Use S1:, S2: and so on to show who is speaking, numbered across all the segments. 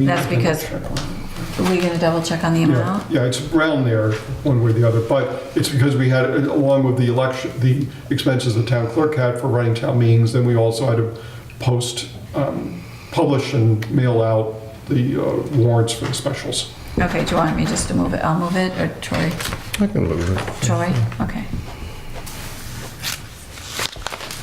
S1: That's because, are we gonna double check on the
S2: Yeah,
S1: amount?
S2: yeah, it's around there, one way or the other, but it's because we had, along with the election, the expenses the town clerk had for running town meetings, then we also had to post, um, publish and mail out the uh, warrants for the specials.
S1: Okay, do you want me just to move it? I'll move it, or Troy?
S3: I can move it.
S1: Troy? Okay.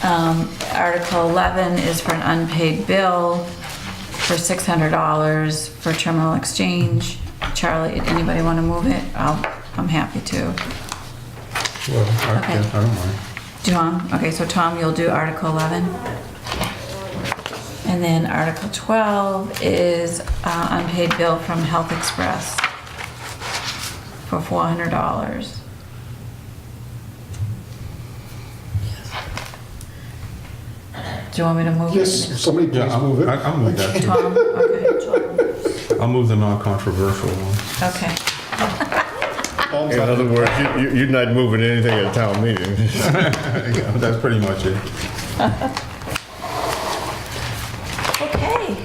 S1: Um, Article 11 is for an unpaid bill for $600 for terminal exchange. Charlie, anybody want to move it? I'll, I'm happy to.
S3: Well, I
S1: Okay.
S3: I don't mind.
S1: Tom, okay, so Tom, you'll do Article 11. And then Article 12 is uh, unpaid bill from Health Express for $400. Do you want me to move it?
S2: Yes, somebody please
S3: Yeah, I'll
S2: move
S3: move
S2: it.
S3: I'll move that.
S1: Tom, okay,
S3: I'll move the non-controversial one.
S1: okay.
S2: Thumbs
S4: In
S2: up.
S4: other words, you- you- you're not moving anything at a town meeting.
S3: Yeah, That's pretty much it.
S1: Okay,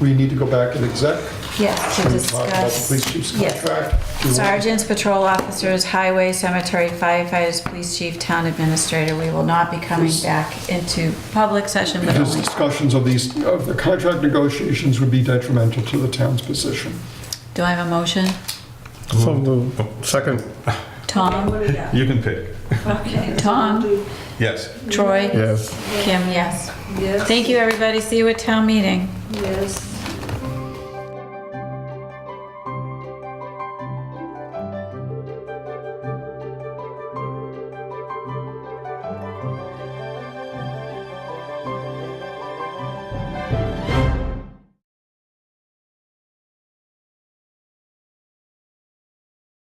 S2: We need to go back and exec.
S1: yes, to
S2: Can we talk about the
S1: discuss.
S2: Police chief's
S1: Yes.
S2: contract. Do you want-
S1: Sergeants, patrol officers, highway, cemetery, firefighters, police chief, town administrator, we will not be coming back into public session, but
S2: Because
S1: only,
S2: discussions of these, of the contract negotiations would be detrimental to the town's position.
S1: do I have a motion?
S4: So moved. Second,
S1: Tom?
S3: You can pick.
S1: Tom?
S3: Yes.
S1: Troy?
S4: yes.
S1: Kim, yes.
S5: Yes.
S1: Thank you, everybody, see you at town meeting.
S5: Yes.